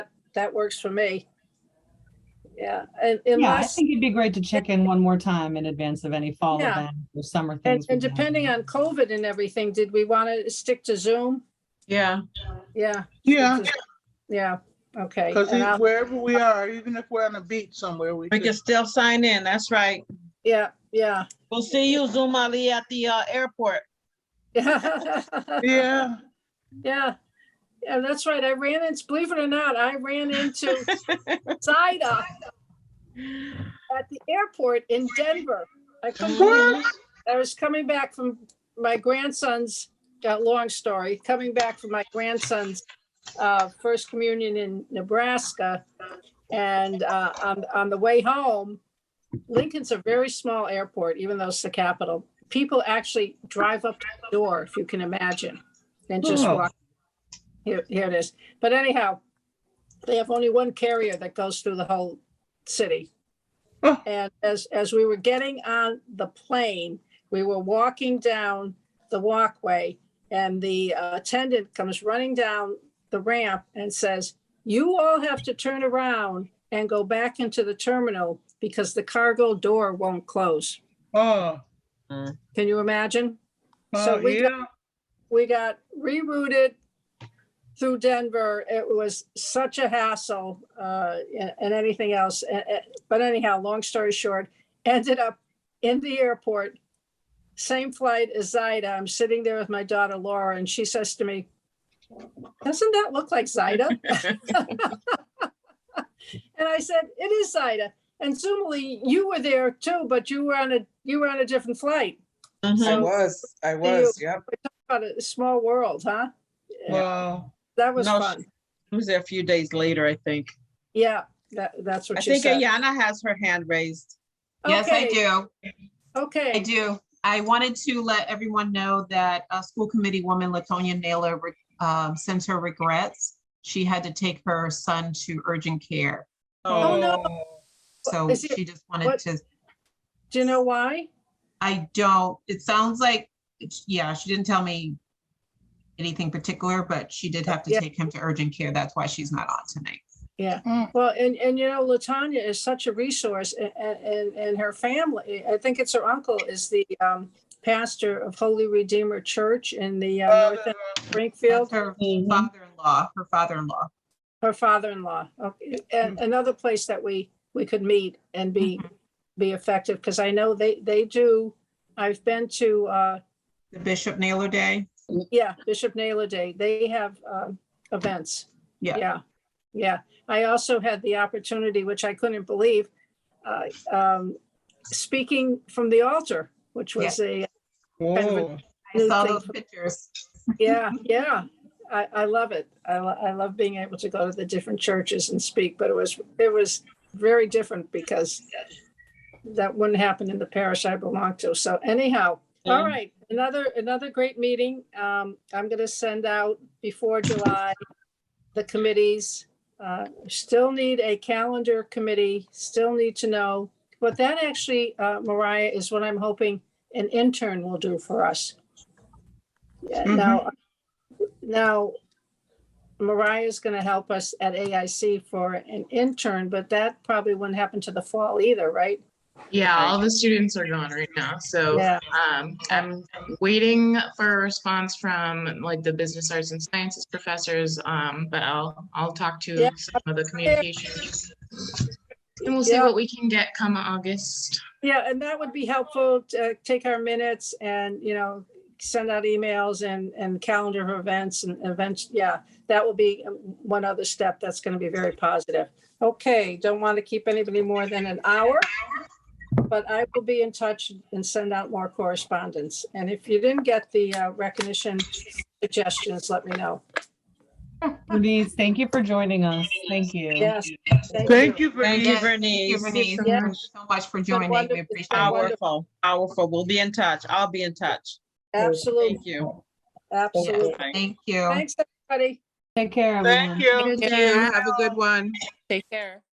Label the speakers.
Speaker 1: that works for me. Yeah, and
Speaker 2: Yeah, I
Speaker 1: unless,
Speaker 2: think it'd be great to check in one more time in advance of any fall
Speaker 1: Yeah.
Speaker 2: event or summer
Speaker 1: and
Speaker 2: things.
Speaker 1: and
Speaker 2: we have.
Speaker 1: depending on COVID and everything, did we want to stick to Zoom?
Speaker 3: Yeah,
Speaker 1: Yeah,
Speaker 4: Yeah,
Speaker 1: yeah, okay.
Speaker 4: because
Speaker 1: and I'll-
Speaker 4: wherever we are, even if we're on a beach somewhere, we
Speaker 3: we
Speaker 4: could
Speaker 3: can still sign in. That's right.
Speaker 1: Yeah, yeah.
Speaker 3: We'll see you, Zoom Ali, at the uh, airport.
Speaker 4: Yeah,
Speaker 1: Yeah, yeah, that's right. I ran into, believe it or not, I ran into Zaida at the airport in Denver. I couldn't believe it. I was coming back from my grandson's, uh, long story, coming back from my grandson's uh, first communion in Nebraska. And uh, on, on the way home, Lincoln's a very small airport, even though it's the capital. People actually drive up to the door, if you can imagine, and just
Speaker 4: Oh.
Speaker 1: walk. Here, here it is. But anyhow, they have only one carrier that goes through the whole city.
Speaker 4: Oh.
Speaker 1: And as, as we were getting on the plane, we were walking down the walkway and the uh, attendant comes running down the ramp and says, you all have to turn around and go back into the terminal because the cargo door won't close.
Speaker 4: oh,
Speaker 1: Can you imagine? So
Speaker 4: oh,
Speaker 1: we got-
Speaker 4: yeah,
Speaker 1: we got rerouted through Denver. It was such a hassle uh, and and anything else. Eh, eh, But anyhow, long story short, ended up in the airport, same flight as Zaida. I'm sitting there with my daughter Laura, and she says to me, "Doesn't that look like Zaida?" And I said, "It is Zaida." And Zumali, you were there too, but you were on a you were on a different flight.
Speaker 5: Mm-hmm.
Speaker 3: Mhm.
Speaker 6: I
Speaker 1: So-
Speaker 6: was, I
Speaker 1: do you-
Speaker 6: was, yep.
Speaker 1: What a small world, huh?
Speaker 4: wow,
Speaker 1: That was
Speaker 3: No,
Speaker 1: fun.
Speaker 3: It was there a few days later, I think.
Speaker 1: Yeah, that, that's
Speaker 3: I
Speaker 1: what you
Speaker 3: think
Speaker 1: said.
Speaker 3: Ayana has her hand raised.
Speaker 7: Yes, I
Speaker 1: Okay,
Speaker 7: do. I
Speaker 1: Okay,
Speaker 7: do. I wanted to let everyone know that uh, School Committee Woman Latonia Naylor re- um, sends her regrets. She had to take her son to urgent care.
Speaker 4: uh,
Speaker 1: Oh, no.
Speaker 7: So
Speaker 1: Is it-
Speaker 7: she just
Speaker 1: what-
Speaker 7: wanted to,
Speaker 1: do you know why?
Speaker 7: I don't, it sounds like, it's- yeah, she didn't tell me anything particular, but she did have to
Speaker 1: Yeah.
Speaker 7: take him to urgent care. That's why she's not on tonight.
Speaker 1: Well, and, and you know, Latanya is such a resource a- a- and, and her family, I think it's her uncle is the um, pastor of Holy Redeemer Church in the uh,
Speaker 7: Oh,
Speaker 4: Uh,
Speaker 1: North End of
Speaker 7: That's
Speaker 1: Springfield,
Speaker 7: her
Speaker 3: Mhm.
Speaker 5: Mm-hmm.
Speaker 7: father-in-law, her father-in-law.
Speaker 1: her father-in-law. Okay,
Speaker 7: Mm-hmm.
Speaker 1: And another place that we, we could meet and be,
Speaker 7: Mm-hmm.
Speaker 1: be effective, because I know they, they do, I've been to, uh,
Speaker 7: The Bishop Naylor Day.
Speaker 1: Yeah, Bishop Naylor Day. They have um, events.
Speaker 7: Yeah.
Speaker 1: Yeah, yeah. I also had the opportunity, which I couldn't believe, uh, um, speaking from the altar, which was a,
Speaker 4: whoa,
Speaker 7: I
Speaker 1: New
Speaker 7: saw
Speaker 1: thing
Speaker 7: those
Speaker 1: for-
Speaker 7: pictures.
Speaker 1: yeah, yeah. I, I love it. I, lo- I love being able to go to the different churches and speak, but it was, it was very different because that wouldn't happen in the parish I belong to. So anyhow, all
Speaker 3: Yeah.
Speaker 1: right, another, another great meeting. Um, I'm gonna send out before July, the committees. Uh, still need a calendar committee, still need to know. But that actually, uh, Mariah, is what I'm hoping an intern will do for us. Yeah,
Speaker 4: Mhm.
Speaker 1: now, now Mariah's gonna help us at AIC for an intern, but that probably wouldn't happen to the fall either, right?
Speaker 5: Yeah, all the students are gone right now, so
Speaker 1: Yeah.
Speaker 5: um, I'm waiting for a response from like the business arts and sciences professors. Um, but I'll I'll talk
Speaker 1: Yeah.
Speaker 5: to some of the communications. And we'll see
Speaker 1: Yeah.
Speaker 5: what we can get come August.
Speaker 1: Yeah, and that would be helpful to uh, take our minutes and, you know, send out emails and, and calendar of events and events. Yeah, that will be um, one other step that's going to be very positive. Okay, don't want to keep anybody more than an hour, but I will be in touch and send out more correspondence. And if you didn't get the uh, recognition suggestions, let me know.
Speaker 2: Denise, thank you for joining us. Thank you.
Speaker 1: Yes.
Speaker 4: thank you for
Speaker 3: Thank you,
Speaker 4: your,
Speaker 7: Thank you,
Speaker 3: Bernice.
Speaker 7: Bernice.
Speaker 1: Yeah.
Speaker 7: Thank you so much for joining.
Speaker 1: wonderful-
Speaker 7: We
Speaker 1: it's
Speaker 7: appreciate
Speaker 1: been
Speaker 7: it.
Speaker 1: wonderful.
Speaker 3: Powerful, powerful. We'll be in touch. I'll be in touch.
Speaker 1: Absolutely,
Speaker 3: Thank you.
Speaker 1: absolutely.
Speaker 3: Thank
Speaker 7: Thank you.
Speaker 1: Thanks, everybody.
Speaker 2: Take care, everyone.
Speaker 4: thank you.
Speaker 7: Thank you. Have a good one.
Speaker 8: Take care.